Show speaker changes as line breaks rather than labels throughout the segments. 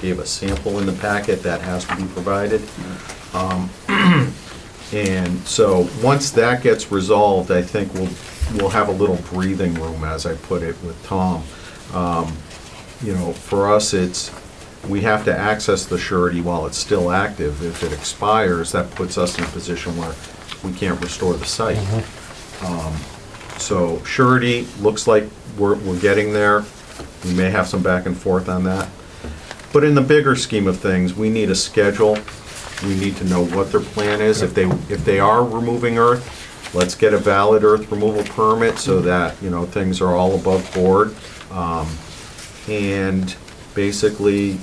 gave a sample in the packet that has to be provided. Um, And so, once that gets resolved, I think we'll, we'll have a little breathing room, as I put it with Tom. Um, You know, for us, it's, we have to access the surety while it's still active. If it expires, that puts us in a position where we can't restore the site. Um, So surety, looks like we're, we're getting there. We may have some back and forth on that. But in the bigger scheme of things, we need a schedule. We need to know what their plan is. If they, if they are removing earth, let's get a valid earth removal permit so that, you know, things are all above board. Um, And basically,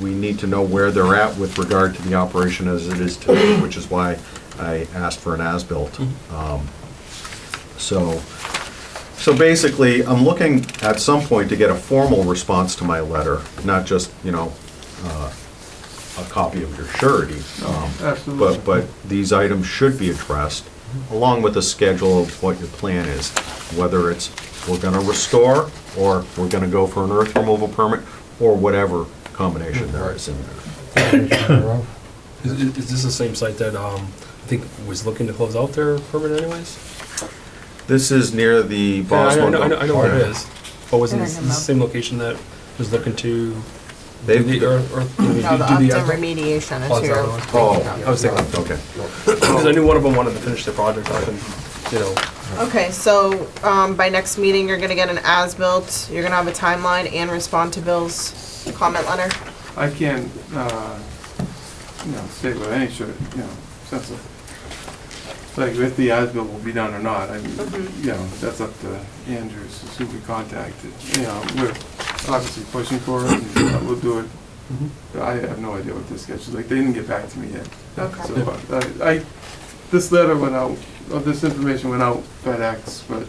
we need to know where they're at with regard to the operation as it is today, which is why I asked for an as-built. Um, So, so basically, I'm looking at some point to get a formal response to my letter, not just, you know, uh, a copy of your surety. Um,
Absolutely.
But, but these items should be addressed, along with a schedule of what your plan is, whether it's we're gonna restore, or we're gonna go for an earth removal permit, or whatever combination there is in there.
Is, is is this the same site that, um, I think was looking to close out their permit anyways?
This is near the
Yeah, I know- I
Boswell.
know, I know, I know where it is, but wasn't
Yeah, I
this this
know
the
about-
same location that was looking to do
They've-
the earth, earth, do
No, the
the- do the
Upton
earth?
remediation
Oh,
is
is
here.
that the one?
Oh.
I was thinking,
Okay,
because I knew one of them wanted to finish their project up and, you know,
Okay, so, um, by next meeting, you're gonna get an as-built, you're gonna have a timeline and respond to Bill's comment letter.
I can't, uh, you know, say with any sort, of, you know, sense of, like, if the ASBIL will be done or not, I mean,
Mhm.
you know, that's up to Andrews, it's who we contacted. You know, we're obviously pushing for it, and uh, we'll do it.
Mhm.
But I have no idea what this sketch is like, they didn't get back to me yet.
Okay.
So, uh, I, I, this letter went out, or this information went out FedEx, but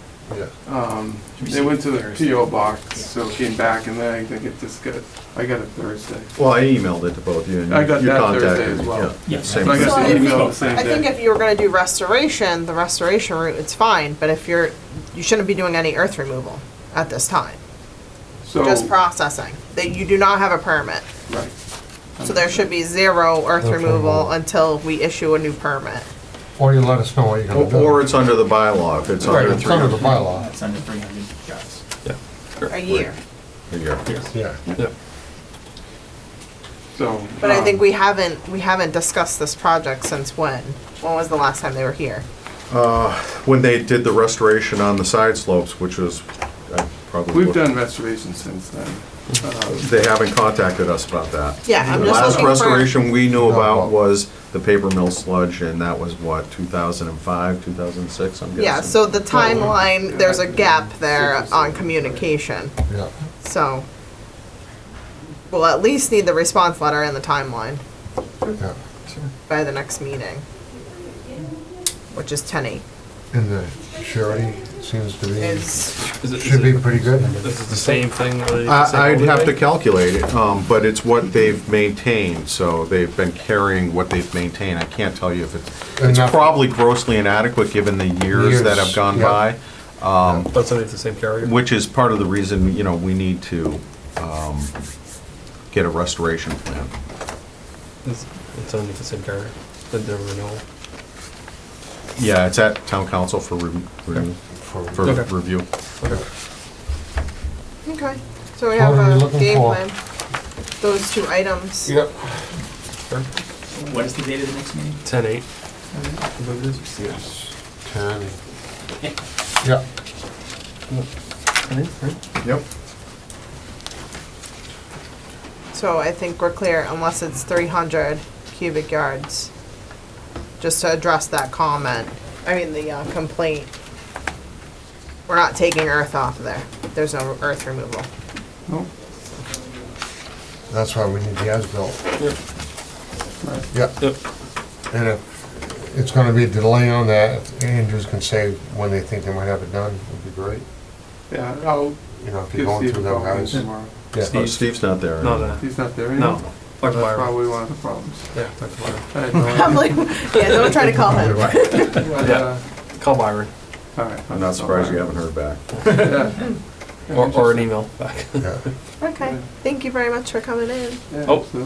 Um, They went to the PO box, so it came back, and then I think it just got, I got it Thursday.
well, I emailed it to both you, and you
I got
you
that
contacted.
Thursday as
me,
well.
yeah,
Yeah.
same
So I
So
got
I
the
think-
email the same
I think
day.
if you were gonna do restoration, the restoration route, it's fine, but if you're, you shouldn't be doing any earth removal at this time.
So,
Just processing, that you do not have a permit.
right.
So there should be zero earth removal until we issue a new permit.
Or you let us know what you're gonna
Or
do.
or it's under the bylaw, if it's
Right,
under
it's
three
under the
hundred
bylaw,
That's under three hundred guys.
A year.
a year.
yeah.
So.
But I
um,
think we haven't, we haven't discussed this project since when? When was the last time they were here?
When they did the restoration on the side slopes, which was uh, probably.
We've done restorations since then. Um,
They haven't contacted us about that.
Yeah, I'm
The
just
last
looking for-
restoration we knew
well.
about was the paper mill sludge, and that was what, 2005, 2006, I'm guessing?
Yeah, so the timeline, there's a gap there on communication,
Yeah.
so. We'll at least need the response letter and the timeline
yeah.
by the next meeting. Which is ten eight,
And the surety seems to be,
is,
is it, is
should be
it,
pretty good.
this is the same thing? or the same
I- I'd have to
overlay?
calculate it, um, but it's what they've maintained, so they've been carrying what they've maintained. I can't tell you if it's, it's
Enough.
probably grossly inadequate, given the years that have
Years,
gone
yeah.
by. Um,
But somebody Oh, it's the same carrier?
Which is part of the reason, you know, we need to um, get a restoration plan.
It's, it's underneath the same carrier, the, the renewal.
Yeah, it's at town council for re- re-
for-
for
Okay.
review.
Okay.
okay, so we
So
have
what are we
a
looking
game
for?
plan. Those two items.
Yep.
What is the date of the next meeting?
Ten eight.
Yes, ten. Yeah,
Yep.
So I think we're clear, unless it's three hundred cubic yards, just to address that comment, I mean, the uh, complaint. We're not taking earth off of there, there's no earth removal.
no,
that's why we need the as-built.
right.
Yeah,
Yep.
and if it's gonna be a delay on that, if Andrews can say when they think they might have it done, would be great.
Yeah, I'll
You know, if you're
give
going
Steve a
through that
call
house.
tomorrow.
Yeah.
Oh, Steve's not there.
No, no,
He's not there
no.
anymore.
Like
That's
fire.
probably one of the problems.
Yeah, like fire.
I had no idea.
I'm like, yeah, don't try to call him.
But,
Yeah.
uh,
Call Byron.
all right.
I'm not surprised you haven't heard back.
Yeah.
or, or an email back.
Yeah.
Okay, thank you very much for coming in.
Yeah,
Oh.
absolutely.